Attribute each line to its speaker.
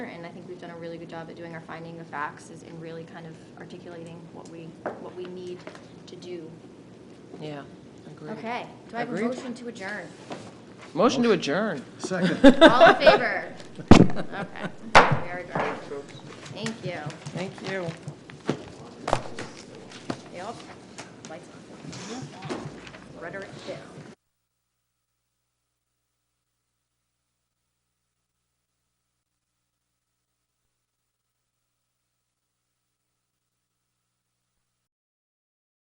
Speaker 1: And I think we've done a really good job at doing our finding of facts is in really kind of articulating what we, what we need to do.
Speaker 2: Yeah, agreed.
Speaker 1: Okay, do I have a
Speaker 2: Agreed.
Speaker 1: motion to adjourn?
Speaker 2: Motion to adjourn.
Speaker 3: Second.
Speaker 1: All in favor? Okay, very good. Thank you.
Speaker 2: Thank you.
Speaker 1: Yep, lights on. Rhetoric down.